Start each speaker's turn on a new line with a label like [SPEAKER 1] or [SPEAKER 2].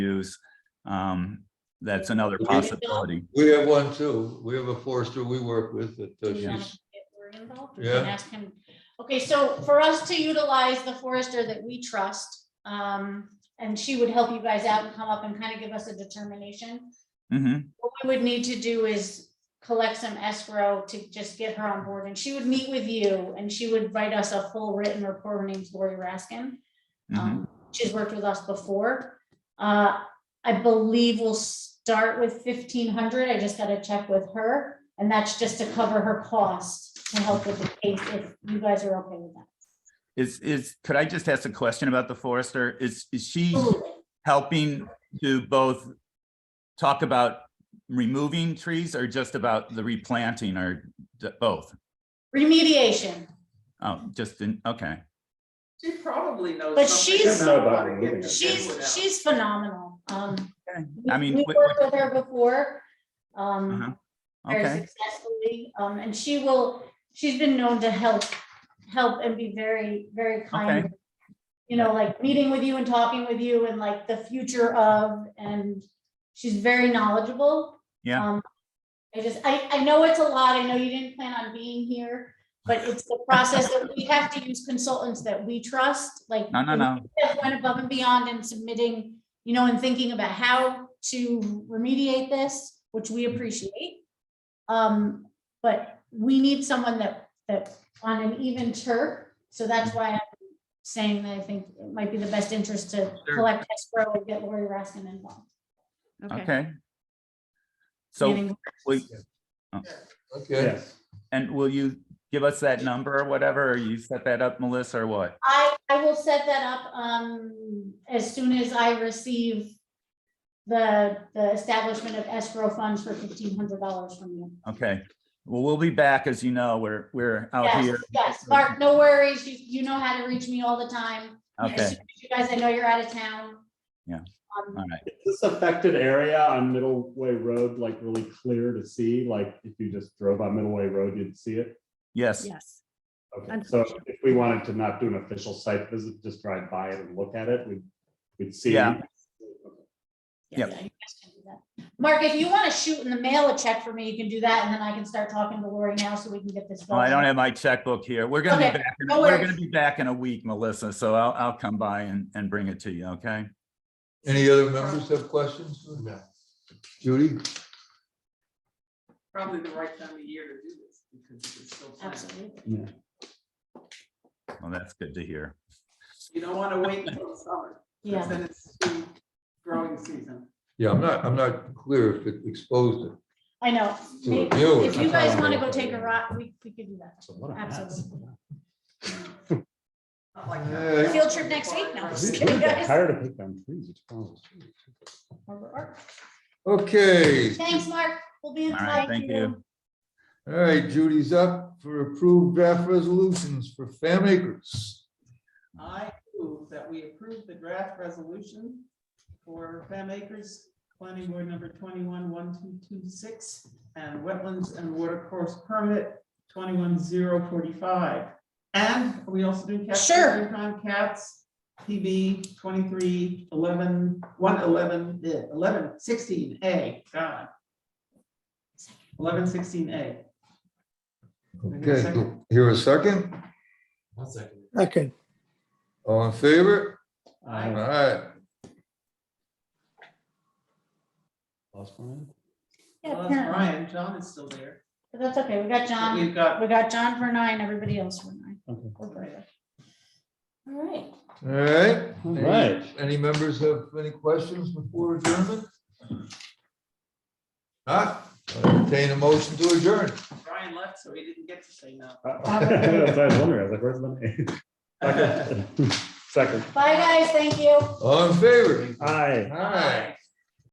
[SPEAKER 1] use. Um, That's another
[SPEAKER 2] Okay.
[SPEAKER 1] possibility.
[SPEAKER 2] We have one too. We have a forester we work with that uh,
[SPEAKER 3] Do you want
[SPEAKER 2] she's,
[SPEAKER 3] to get Rory involved?
[SPEAKER 2] Yeah.
[SPEAKER 3] And ask him, okay, so for us to utilize the forester that we trust, um, and she would help you guys out and come up and kind of give us a determination.
[SPEAKER 1] Mhm.
[SPEAKER 3] What we would need to do is collect some escrow to just get her on board, and she would meet with you, and she would write us a full written report. Her name's Lori Raskin.
[SPEAKER 1] Mhm.
[SPEAKER 3] Um, She's worked with us before. Uh, I believe we'll start with fifteen hundred. I just gotta check with her. And that's just to cover her cost to help with the case if you guys are okay with that.
[SPEAKER 1] Is, is, could I just ask a question about the forester? Is, is she
[SPEAKER 3] Absolutely.
[SPEAKER 1] helping to both talk about removing trees or just about the replanting or d- both?
[SPEAKER 3] Remediation.
[SPEAKER 1] Oh, just in, okay.
[SPEAKER 4] She probably knows.
[SPEAKER 3] But
[SPEAKER 4] something
[SPEAKER 3] she's-
[SPEAKER 4] about
[SPEAKER 5] About
[SPEAKER 4] how to
[SPEAKER 5] removing
[SPEAKER 4] get
[SPEAKER 5] it.
[SPEAKER 4] wood out.
[SPEAKER 3] She's, she's phenomenal. Um,
[SPEAKER 1] Okay.
[SPEAKER 3] we-
[SPEAKER 1] I mean,
[SPEAKER 3] We
[SPEAKER 1] wh-
[SPEAKER 3] worked with her before. Um,
[SPEAKER 1] Uh-huh.
[SPEAKER 3] very
[SPEAKER 1] Okay,
[SPEAKER 3] successfully. Um, and she will, she's been known to help, help and be very, very kind. You know, like meeting with you and talking with you and like the future of, and she's very knowledgeable.
[SPEAKER 1] Yeah.
[SPEAKER 3] Um, I just, I, I know it's a lot. I know you didn't plan on being here, but it's the process that we have to use consultants that we trust, like.
[SPEAKER 1] no, no, no.
[SPEAKER 3] Steph went above and beyond in submitting, you know, and thinking about how to remediate this, which we appreciate. Um, but we need someone that, that on an even turf, so that's why I'm saying that I think it might be the best interest to
[SPEAKER 1] Sure.
[SPEAKER 3] collect escrow and get Lori Raskin involved.
[SPEAKER 1] Okay. So,
[SPEAKER 3] Meaning-
[SPEAKER 1] will-
[SPEAKER 2] okay.
[SPEAKER 1] and will you give us that number or whatever? Or you set that up, Melissa, or what?
[SPEAKER 3] I, I will set that up, um, as soon as I receive the, the establishment of escrow funds for fifteen hundred dollars from you.
[SPEAKER 1] Okay, well, we'll be back, as you know, we're, we're out here.
[SPEAKER 3] Yes, yes, Mark, no worries. You, you know how to reach me all the time. As
[SPEAKER 1] Okay,
[SPEAKER 3] soon as You guys, I know you're out of town.
[SPEAKER 1] Yeah.
[SPEAKER 3] Um,
[SPEAKER 1] all right,
[SPEAKER 5] Is this affected area on Middleway Road like really clear to see? Like if you just drove on Middleway Road, you'd see it?
[SPEAKER 1] yes,
[SPEAKER 6] Yes,
[SPEAKER 5] Okay, so if we wanted to not do an official site visit, just drive by it and look at it, we'd, we'd see.
[SPEAKER 1] Yeah.
[SPEAKER 3] yeah,
[SPEAKER 1] Yep.
[SPEAKER 3] you guys can do that. Mark, if you want to shoot in the mail a check for me, you can do that, and then I can start talking to Lori now so we can get this.
[SPEAKER 1] well, Oh, I don't
[SPEAKER 3] going.
[SPEAKER 1] have my checkbook here, we're gonna
[SPEAKER 3] Okay,
[SPEAKER 1] be back, in-
[SPEAKER 3] no
[SPEAKER 1] we're
[SPEAKER 3] worries.
[SPEAKER 1] gonna be back in a week, Melissa, so I'll, I'll come by and, and bring it to you, okay?
[SPEAKER 2] Any other members have questions? No. Judy?
[SPEAKER 4] Probably the right time of year to do this because it's still planning.
[SPEAKER 3] Absolutely.
[SPEAKER 1] Well, that's good to hear.
[SPEAKER 4] You don't want to wait until summer. 'cause
[SPEAKER 3] Yeah,
[SPEAKER 4] Then it's the growing season.
[SPEAKER 2] Yeah, I'm not, I'm not clear if it exposed it.
[SPEAKER 3] I know.
[SPEAKER 2] To a
[SPEAKER 3] Maybe-
[SPEAKER 2] viewer.
[SPEAKER 3] If you guys want to go take a ride, we, we could do that. Absolutely.
[SPEAKER 4] Not like
[SPEAKER 2] Hey.
[SPEAKER 4] that.
[SPEAKER 3] Field trip next week? No, I'm just kidding, guys.
[SPEAKER 5] Tired of picking on trees. it's terrible.
[SPEAKER 2] Okay,
[SPEAKER 3] Thanks, Mark. We'll be in
[SPEAKER 1] All
[SPEAKER 3] touch.
[SPEAKER 1] right, thank you.
[SPEAKER 2] all right, Judy's up for approved draft resolutions for Fam Acres.
[SPEAKER 4] I move that we approve the draft resolution for Fam Acres, planning board number twenty-one, one, two, two, six, and wetlands and water course permit twenty-one, zero, forty-five. And are we also doing cats.
[SPEAKER 3] Sure.
[SPEAKER 4] Yukon cats, PB twenty-three, eleven, one, eleven, eh, eleven, sixteen, A, God. Eleven, sixteen, A.
[SPEAKER 2] Okay, here a second,
[SPEAKER 7] Second,
[SPEAKER 2] all in favor? All
[SPEAKER 5] Uh,
[SPEAKER 2] right,
[SPEAKER 5] last one?
[SPEAKER 3] Yeah,
[SPEAKER 4] Well, that's
[SPEAKER 3] apparently.
[SPEAKER 4] Brian, John is still there.
[SPEAKER 3] But That's okay. We got
[SPEAKER 4] But
[SPEAKER 3] John,
[SPEAKER 4] We've got,
[SPEAKER 3] we got John for nine, everybody else for nine.
[SPEAKER 5] Okay.
[SPEAKER 3] We're perfect. All right.
[SPEAKER 2] all right.
[SPEAKER 5] All right.
[SPEAKER 2] Any members have any questions before adjournment? Huh? Entertain a motion to adjourn.
[SPEAKER 4] Brian left, so he didn't get to say no.
[SPEAKER 5] That's what I was wondering, I was like, where's the name? Second,
[SPEAKER 3] Bye, guys. Thank you.
[SPEAKER 2] All in favor?
[SPEAKER 5] aye.
[SPEAKER 2] All right.